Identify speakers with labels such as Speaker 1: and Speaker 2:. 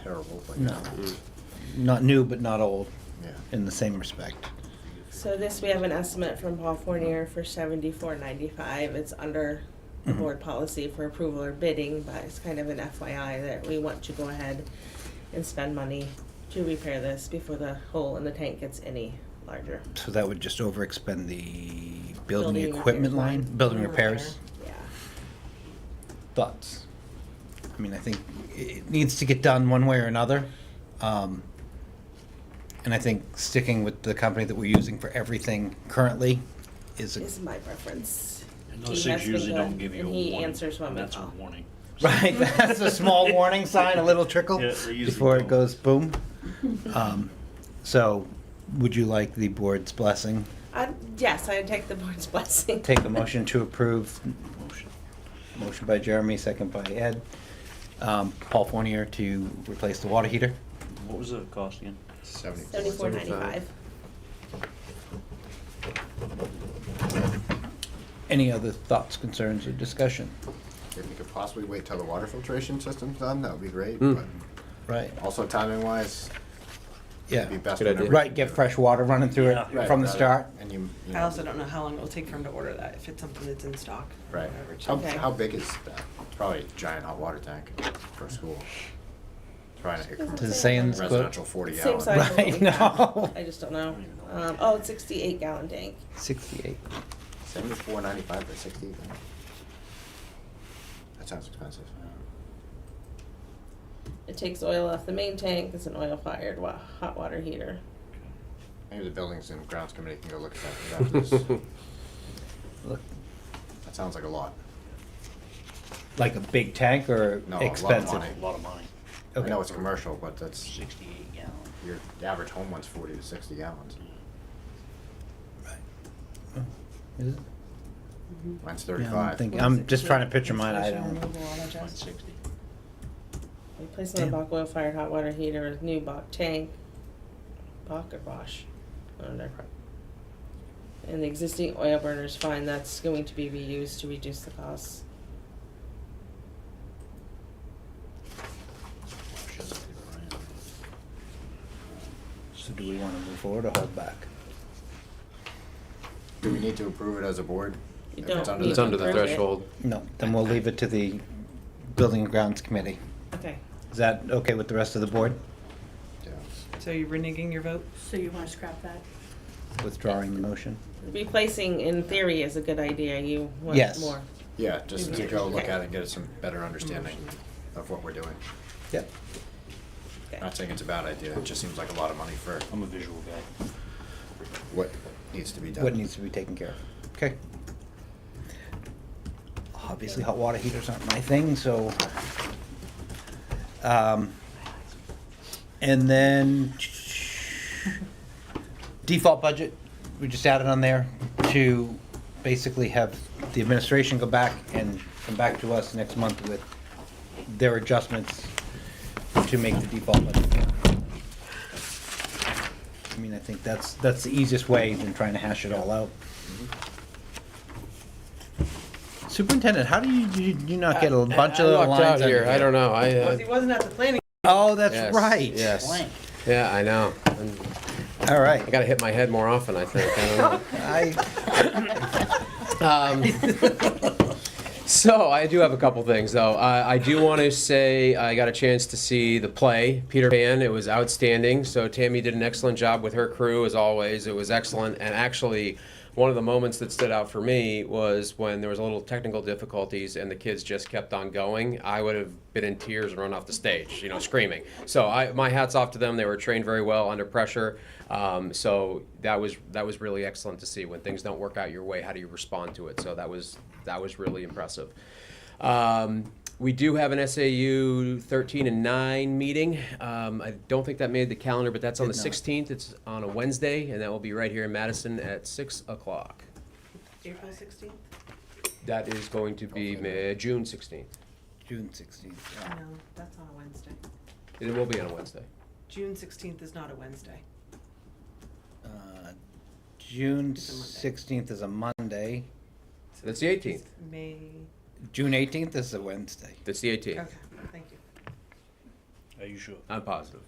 Speaker 1: terrible, but. um,
Speaker 2: No. Not new, but not old,
Speaker 1: Yeah.
Speaker 2: in the same respect.
Speaker 3: So this, we have an estimate from Paul Fournier for seventy-four ninety-five. It's under the
Speaker 2: Mhm.
Speaker 3: board policy for approval or bidding, but it's kind of an FYI that we want to go ahead and spend money to repair this before the hole in the tank gets any larger.
Speaker 2: So that would just overexpend the building
Speaker 3: Building repairs
Speaker 2: equipment line,
Speaker 3: line.
Speaker 2: building repairs.
Speaker 3: Yeah.
Speaker 2: Thoughts? I mean, I think i- it needs to get done one way or another. Um, And I think sticking with the company that we're using for everything currently is,
Speaker 3: Is
Speaker 2: a-
Speaker 3: my preference.
Speaker 4: And
Speaker 3: He
Speaker 4: those
Speaker 3: has
Speaker 4: things
Speaker 3: been
Speaker 4: usually
Speaker 3: good,
Speaker 4: don't give you a
Speaker 3: and
Speaker 4: warning.
Speaker 3: he answers when
Speaker 4: and
Speaker 3: we
Speaker 4: That's a
Speaker 3: call.
Speaker 4: warning.
Speaker 2: right, that's a small warning sign, a little trickle
Speaker 4: Yeah, they usually
Speaker 2: before it
Speaker 4: don't.
Speaker 2: goes boom. Um, So would you like the board's blessing?
Speaker 3: I, yes, I take the board's blessing.
Speaker 2: Take a motion to approve
Speaker 4: Motion.
Speaker 2: Motion by Jeremy, second by Ed. Um, Paul Fournier to replace the water heater.
Speaker 4: What was the cost again?
Speaker 3: Seventy-four ninety-five.
Speaker 2: Any other thoughts, concerns, or discussion?
Speaker 1: If we could possibly wait till the water filtration system's done, that would be great,
Speaker 5: Hmm.
Speaker 1: but
Speaker 2: Right,
Speaker 1: also timing wise, it'd be
Speaker 2: yeah.
Speaker 1: best.
Speaker 5: Good idea.
Speaker 1: whenever
Speaker 2: Right,
Speaker 1: you
Speaker 2: get
Speaker 1: do it.
Speaker 2: fresh water running through it
Speaker 1: Right,
Speaker 2: from the
Speaker 1: got it.
Speaker 2: start.
Speaker 1: And you, you
Speaker 6: I
Speaker 1: know,
Speaker 6: also don't know how long it will take for him to order that, if it's something that's in stock. or
Speaker 1: right.
Speaker 6: whatever,
Speaker 1: How,
Speaker 3: Okay.
Speaker 1: how big is that? Probably a giant hot water tank for a school. Trying to,
Speaker 2: Does it say in this quote?
Speaker 1: residential forty
Speaker 3: Same
Speaker 1: gallon.
Speaker 3: size as what
Speaker 2: Right,
Speaker 3: we
Speaker 2: no.
Speaker 3: have. I just don't know. Um, oh, it's sixty-eight gallon tank.
Speaker 2: Sixty-eight.
Speaker 1: Seventy-four ninety-five for sixty. That sounds expensive.
Speaker 3: It takes oil off the main tank. It's an oil-fired wa- hot water heater.
Speaker 1: Maybe the buildings and grounds committee can go look at that after this.
Speaker 2: Look,
Speaker 1: That sounds like a lot.
Speaker 2: Like a big tank or
Speaker 1: No, a lot of
Speaker 2: expensive?
Speaker 1: money.
Speaker 4: A lot of money,
Speaker 1: I
Speaker 2: Okay.
Speaker 1: know it's commercial, but that's,
Speaker 4: sixty-eight gallon.
Speaker 1: your average home one's forty to sixty gallons.
Speaker 2: Oh, Is
Speaker 1: Mine's
Speaker 2: it? Yeah, I'm
Speaker 1: thirty-five.
Speaker 2: thinking- I'm just trying to picture mine, I don't.
Speaker 4: One sixty.
Speaker 3: Replacing the
Speaker 2: Damn.
Speaker 3: Bach oil-fired hot water heater with new Bach tank, Bach or Bosch, I don't know. And the existing oil burner is fine. That's going to be reused to reduce the costs.
Speaker 2: So do we wanna move forward or hold back?
Speaker 1: Do we need to approve it as a board?
Speaker 3: You
Speaker 1: If it's
Speaker 3: don't
Speaker 1: under
Speaker 3: need
Speaker 5: It's under the
Speaker 3: Approve it.
Speaker 5: threshold.
Speaker 2: No, then we'll leave it to the Building and Grounds Committee.
Speaker 3: Okay.
Speaker 2: Is that okay with the rest of the board?
Speaker 1: Yeah.
Speaker 6: So you're reneging your vote?
Speaker 7: So you wanna scrap that?
Speaker 2: Withdrawing the motion?
Speaker 3: Replacing in theory is a good idea. You want
Speaker 2: Yes.
Speaker 3: more.
Speaker 1: Yeah, just to go look
Speaker 3: Okay. Mm-hmm.
Speaker 1: at it and get some better understanding of what we're doing.
Speaker 2: Yep.
Speaker 3: Okay.
Speaker 1: Not saying it's a bad idea, it just seems like a lot of money for
Speaker 4: I'm a visual guy.
Speaker 1: what needs to be done.
Speaker 2: what needs to be taken care of. Okay. Obviously, hot water heaters aren't my thing, so. Um, and then default budget, we just added on there to basically have the administration go back and come back to us next month with their adjustments to make the default budget. I mean, I think that's, that's the easiest way than trying to hash it all out. Superintendent, how do you, do you- do you not get a bunch of
Speaker 5: I
Speaker 2: little
Speaker 5: walked out
Speaker 2: lines under
Speaker 5: here. I don't know. I.
Speaker 6: Well,
Speaker 5: Uh,
Speaker 6: he wasn't at the planning,
Speaker 2: Oh, that's
Speaker 5: yes,
Speaker 2: right.
Speaker 5: Yes. Yeah, I know. I'm,
Speaker 2: All
Speaker 5: I
Speaker 2: right.
Speaker 5: got to hit my head more often. I think. I don't know.
Speaker 2: I,
Speaker 5: Um, so I do have a couple things though. Uh, I do want to say I got a chance to see the play Peter Pan. It was outstanding. So Tammy did an excellent job with her crew as always. It was excellent and actually. One of the moments that stood out for me was when there was a little technical difficulties and the kids just kept on going. I would have been in tears and run off the stage, you know, screaming. So I, my hats off to them. They were trained very well under pressure. Um, so that was that was really excellent to see. When things don't work out your way, how do you respond to it? So that was that was really impressive. Um, we do have an SAU 13 and 9 meeting. Um, I don't think that made the calendar, but that's on the
Speaker 2: Did not.
Speaker 5: 16th. It's on a Wednesday, and that will be right here in Madison at 6 o'clock.
Speaker 6: April sixteenth?
Speaker 5: That is going to be Ma- June 16th.
Speaker 2: June sixteenth.
Speaker 6: No, that's on a Wednesday.
Speaker 5: It will be on a Wednesday.
Speaker 6: June sixteenth is not a Wednesday.
Speaker 2: Uh, June
Speaker 6: It's a Monday.
Speaker 2: sixteenth is a Monday.
Speaker 5: That's the 18th.
Speaker 6: It's May,
Speaker 2: June eighteenth is a Wednesday.
Speaker 5: That's the 18th.
Speaker 6: okay, thank you.
Speaker 4: I
Speaker 2: Are you sure?
Speaker 5: I'm positive.